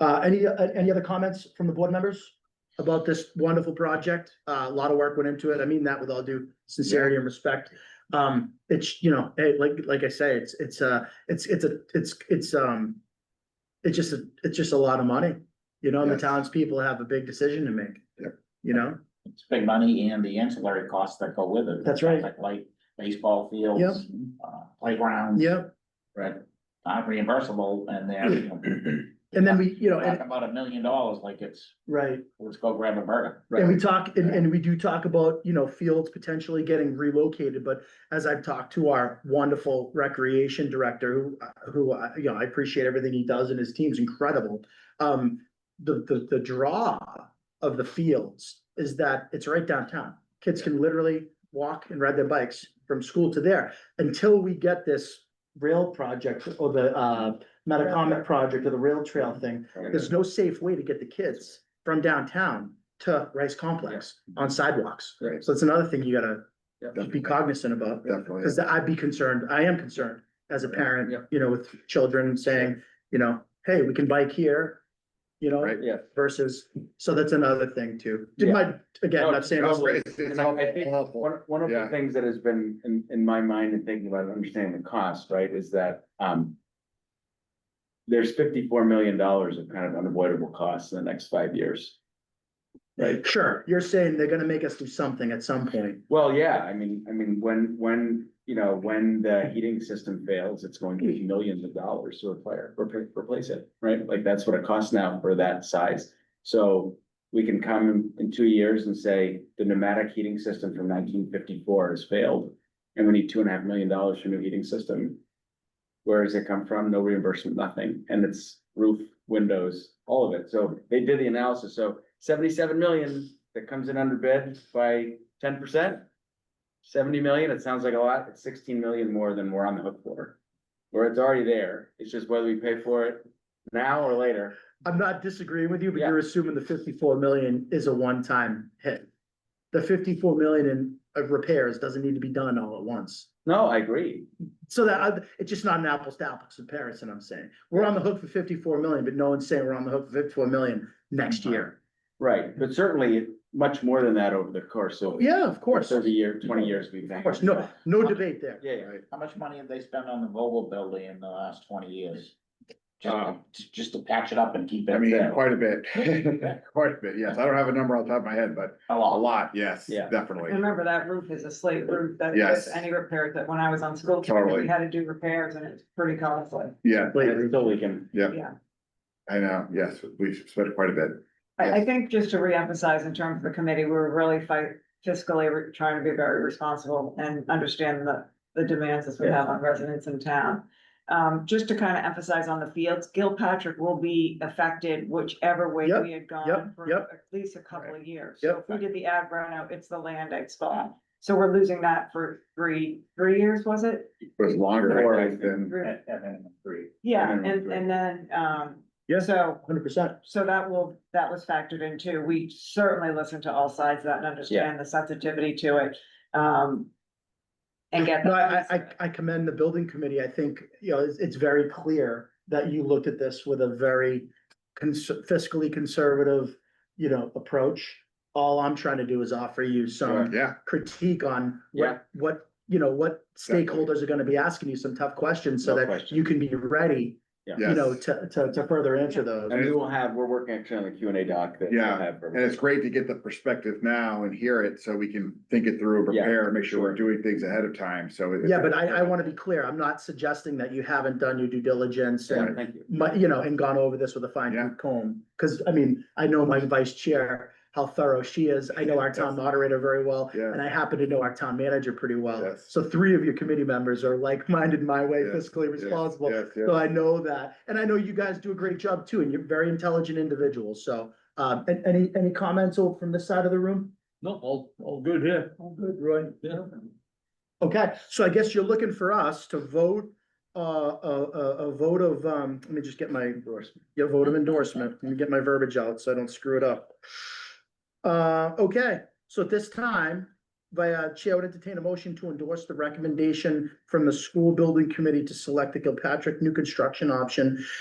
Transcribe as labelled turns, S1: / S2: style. S1: Uh, any, uh, any other comments from the board members about this wonderful project? Uh, a lot of work went into it. I mean that with all due sincerity and respect. Um, it's, you know, eh, like, like I say, it's, it's, uh, it's, it's a, it's, it's, um, it's just, a it's just a lot of money, you know, and the
S2: Yes.
S1: townspeople have a big decision to make. You know,
S3: It's big money and the ancillary costs that go with it.
S1: That's right.
S3: Like light baseball fields, uh, playgrounds.
S1: yeah,
S3: Right. Not reimbursable and they're, you know,
S1: and then we, you know, and,
S3: talking about a million dollars like it's,
S1: right,
S3: let's go grab a burger.
S1: And we talk, and, and we do talk about, you know, fields potentially getting relocated, but as I've talked to our wonderful recreation director, who, uh, who, I- you know, I appreciate everything he does and his team's incredible. Um, the, the, the draw of the fields is that it's right downtown. Kids can literally walk and ride their bikes from school to there until we get this rail project or the, uh, Metacomet project or the rail trail
S2: Mm-hmm.
S1: thing. There's no safe way to get the kids from downtown to Rice Complex on sidewalks.
S2: Right.
S1: So that's another thing you gotta be
S2: Definitely,
S1: cognizant about,
S2: definitely.
S1: because I'd be concerned, I am concerned as a parent,
S2: Yeah.
S1: you know, with children saying, you know, hey, we can bike here. You know,
S2: Right.
S4: Yeah.
S1: versus, so that's another thing too. Did
S4: Yeah.
S1: my, again,
S4: No,
S1: not saying.
S2: No, it's- it's
S4: And I- I think
S2: helpful.
S4: One, one of
S2: Yeah.
S4: the things that has been in, in my mind and thinking about understanding the cost, right, is that, um. There's fifty-four million dollars of kind of unavoidable costs in the next five years. Right,
S1: Sure, you're saying they're gonna make us do something at some point.
S4: well, yeah, I mean, I mean, when, when, you know, when the heating system fails, it's going to be millions of dollars to repair, repa- replace it, right? Like, that's what it costs now for that size. So we can come in, in two years and say, the pneumatic heating system from nineteen fifty-four has failed. And we need two and a half million dollars for a new heating system. Where does it come from? No reimbursement, nothing. And it's roof, windows, all of it. So they did the analysis. So seventy-seven million that comes in under bid by ten percent. Seventy million, it sounds like a lot. It's sixteen million more than we're on the hook for. Where it's already there. It's just whether we pay for it now or later.
S1: I'm not disagreeing with you, but
S4: Yeah.
S1: you're assuming the fifty-four million is a one-time hit. The fifty-four million in of repairs doesn't need to be done all at once.
S4: No, I agree.
S1: So that, I- it's just not an apples to apples comparison, I'm saying. We're on the hook for fifty-four million, but no one's saying we're on the hook for fifty-four million next year.
S4: Right, but certainly much more than that over the course of.
S1: Yeah, of course, of
S4: Thirty year, twenty years we've. Of
S1: course, no, no debate there.
S4: Yeah, yeah.
S3: How much money have they spent on the Vogel building in the last twenty years? Just,
S2: Um,
S3: to- just to patch it up and keep
S2: I
S3: it
S2: mean,
S3: there.
S2: quite a bit, quite a bit, yes. I don't have a number on top of my head, but
S3: A
S2: a
S3: lot.
S2: lot, yes,
S4: Yeah.
S2: definitely.
S5: Remember that roof is a slate roof, that
S2: Yes.
S5: is any repair that when I was on school, committee,
S2: Totally.
S5: we had to do repairs and it's pretty costly.
S2: Yeah,
S1: Wait,
S4: It's Still leaking.
S2: I know, yes, we've spent quite a bit.
S5: I, I think just to reemphasize in terms of the committee, we were really fight fiscally, we're trying to be very responsible and understand the, the demands that we have on residents in town. Um, just to kind of emphasize on the fields, Gilpatrick will be affected whichever way
S1: Yep,
S5: we had
S1: yep,
S5: gone for
S1: yep.
S5: at least a couple of years.
S1: Yep.
S5: So if we did the ag reno, it's the land ag spot. So we're losing that for three, three years, was it?
S2: It was longer I think, than,
S5: Three-
S3: And and then three.
S5: Yeah,
S4: And then
S5: and,
S4: we'll
S5: and then, um,
S1: Yeah.
S5: so,
S1: Hundred percent.
S5: so that will, that was factored in too. We certainly listen to all sides of that and understand the sensitivity to it. Um, and get. the
S1: No, I, I- I,
S5: pieces.
S1: I commend the building committee. I think, you know, it's, it's very clear that you looked at this with a very cons- fiscally conservative, you know, approach. All I'm trying to do is offer you some
S2: yeah,
S1: critique on
S4: Yeah.
S1: what, what, you know, what
S2: Definitely.
S1: stakeholders are gonna be asking you some tough questions so
S4: No
S1: that
S4: question.
S1: you can be ready, you
S2: yes.
S1: know, to, to, to further answer those.
S4: And we will have, we're working actually on the Q and A doc that. we'll
S2: Yeah,
S4: have for-
S2: And it's great to get the perspective now and hear it, so we can think it through, prepare, and make sure we're doing things ahead of time, so. it-
S1: Yeah, but I, I wanna be clear. I'm not suggesting that you haven't done your due diligence and
S4: Yeah, Thank you.
S1: my, you know, and gone over this with a fine
S2: Yeah.
S1: tooth comb. Cause I mean, I know my vice chair, how thorough she is. I know our town moderator very well.
S2: Yeah.
S1: And I happen to know our town manager pretty well.
S2: Yes.
S1: So three of your committee members are like-minded my way,
S2: Yes,
S1: fiscally
S2: Yes,
S1: responsible.
S2: yes, yes.
S1: So I know that. And I know you guys do a great job too, and you're very intelligent individuals. So, um, and any, any comments over from this side of the room?
S6: No, all, all good here.
S1: All good, Roy.
S6: Yeah.
S1: Okay, so I guess you're looking for us to vote, uh, a, a, a vote of, um, let me just get my, your vote of endorsement, let me get my verbiage out so I don't screw it up. Uh, okay, so at this time, via chair would entertain a motion to endorse the recommendation from the school building committee to select the Gilpatrick new construction option